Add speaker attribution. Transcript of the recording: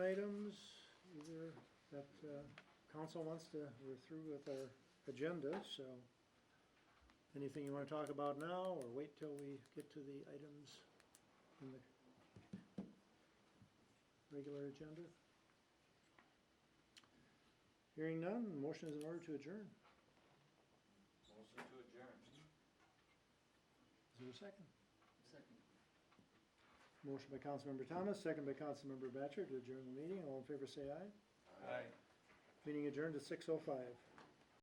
Speaker 1: that uh, council wants to, we're through with our agenda, so anything you wanna talk about now, or wait till we get to the items in the regular agenda? Hearing none, motion is in order to adjourn.
Speaker 2: Motion to adjourn.
Speaker 1: Is there a second?
Speaker 2: Second.
Speaker 1: Motion by Councilmember Thomas, second by Councilmember Batchor to adjourn the meeting. All in favor say aye.
Speaker 2: Aye.
Speaker 1: Meeting adjourned at six oh five.